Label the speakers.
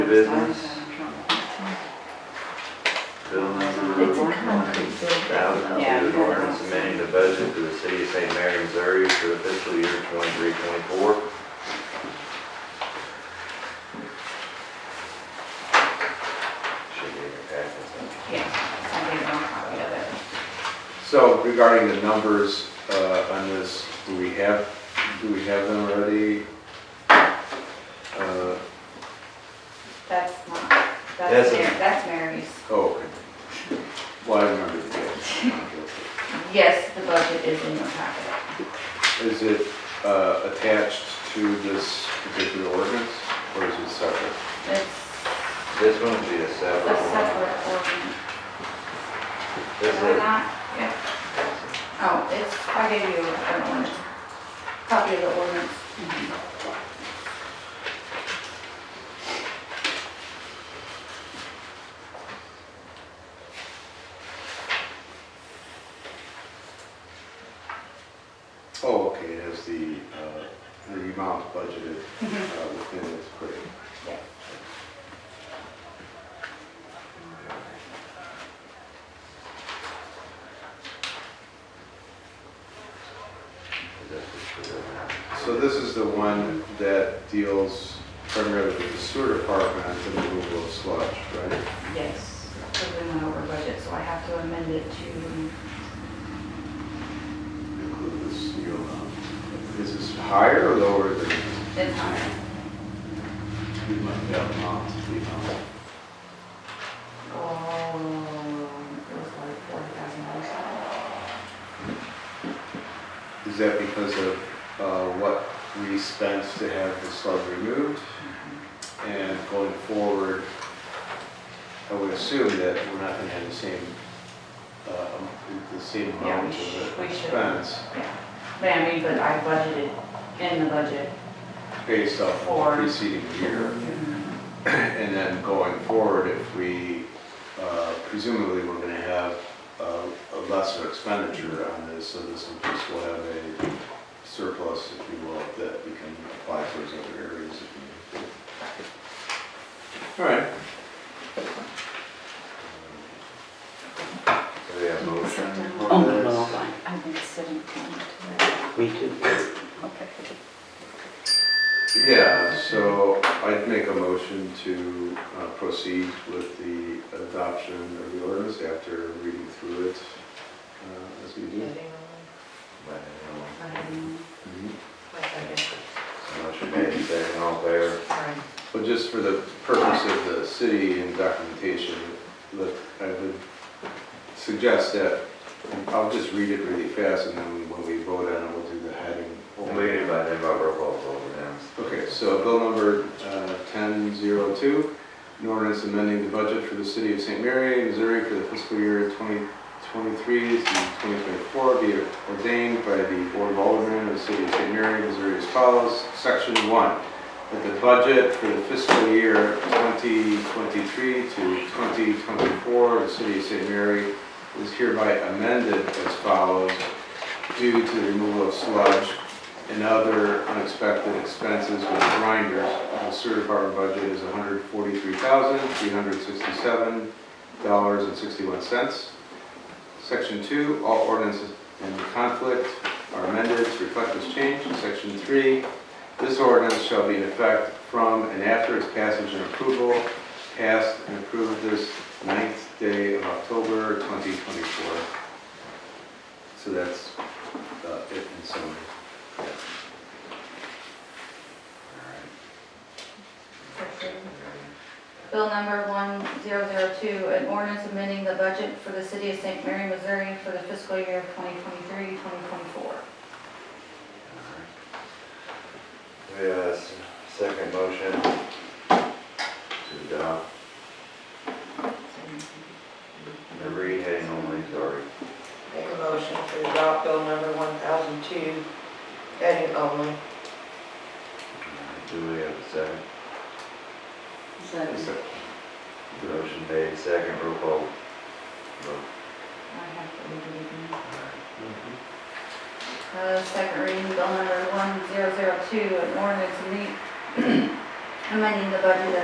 Speaker 1: business, bill
Speaker 2: It's a
Speaker 1: number
Speaker 2: concrete building.
Speaker 1: thousand,
Speaker 3: Yeah.
Speaker 1: an ordinance amending the budget to the city of St. Mary, Missouri for the fiscal year twenty-three, twenty-four. Should be in your packets.
Speaker 3: Yes, I think I'm copy of it.
Speaker 4: So regarding the numbers uh, on this, do we have, do we have them already? Uh,
Speaker 3: That's not,
Speaker 1: That's
Speaker 3: that's
Speaker 1: a-
Speaker 3: Mar- that's Mary's.
Speaker 4: Oh, okay. Well, I remember that.
Speaker 3: Yes, the budget is in your packet.
Speaker 4: Is it uh, attached to this particular ordinance or is it separate?
Speaker 3: It's
Speaker 1: This one would be a
Speaker 3: a
Speaker 1: separate one.
Speaker 3: separate ordinance.
Speaker 1: This
Speaker 3: Am I
Speaker 1: is,
Speaker 3: not? Yeah. Oh, it's, I gave you an ordinance, copy of the ordinance.
Speaker 4: Oh, okay, it has the, uh, the amount budgeted uh, within it, great.
Speaker 1: this is for the-
Speaker 4: So this is the one that deals primarily with the sewer department and the removal of sludge, right?
Speaker 3: Yes, because we went over budget, so I have to amend it to,
Speaker 4: include this new amount. Is this higher or lower than
Speaker 3: it's higher.
Speaker 4: we might have amount we know?
Speaker 3: Oh, it was like forty thousand dollars.
Speaker 4: Is that because of uh, what we spent to have the slug removed? And going forward, I would assume that we're not gonna have the same, uh, the same
Speaker 3: Yeah, we
Speaker 4: amount
Speaker 3: should- we
Speaker 4: of
Speaker 3: should.
Speaker 4: expense
Speaker 3: Yeah, but I mean, but I budgeted in the budget.
Speaker 4: based off
Speaker 3: For-
Speaker 4: of the preceding year. And then going forward, if we, uh, presumably, we're gonna have uh, a lesser expenditure on this, so this will just, will have a surplus, if you will, that we can apply towards other areas. if need be. All right,
Speaker 1: So we have a motion
Speaker 5: Oh,
Speaker 1: for
Speaker 5: no,
Speaker 1: this.
Speaker 5: no,
Speaker 2: I think sitting
Speaker 5: we do.
Speaker 2: Okay.
Speaker 4: yeah, so I'd make a motion to uh, proceed with the adoption of the ordinance after reading through it uh, as we do.
Speaker 1: But, um,
Speaker 4: Mhm.
Speaker 1: so Motion made, second, all fair.
Speaker 4: But just for the purpose of the city and documentation, look, I would suggest that, I'll just read it really fast, and then when we vote on it, we'll do the heading.
Speaker 1: We'll meet it by then, by roll call vote now.
Speaker 4: Okay, so bill number uh, 1002, an ordinance amending the budget for the city of St. Mary, Missouri for the fiscal year 2023 to 2024 be ordained by the Board of Aldermen of the city of St. Mary, Missouri as follows. Section 1, that the budget for the fiscal year 2023 to 2024 of the city of St. Mary is hereby amended as follows due to the removal of sludge and other unexpected expenses with grinders. The sewer department budget is $143,367.61. Section 2, all ordinances in conflict are amended to reflect this change. Section 3, this ordinance shall be in effect from and after its passage and approval, passed and approved this ninth day of October 2024. So that's uh, it in summary.
Speaker 3: Bill number 1002, an ordinance amending the budget for the city of St. Mary, Missouri for the fiscal year of 2023, 2024.
Speaker 1: We have a s- second motion to adopt the read heading only, sorry.
Speaker 6: Make a motion to adopt bill number 1002, heading only.
Speaker 1: Do we have a second?
Speaker 4: Is that-
Speaker 1: Motion made, second, roll call. vote.
Speaker 3: I have to read it again.
Speaker 1: All right.
Speaker 3: Uh,
Speaker 4: Mm-hmm.
Speaker 3: Second reading, bill number 1002, an ordinance amending- amending the budget of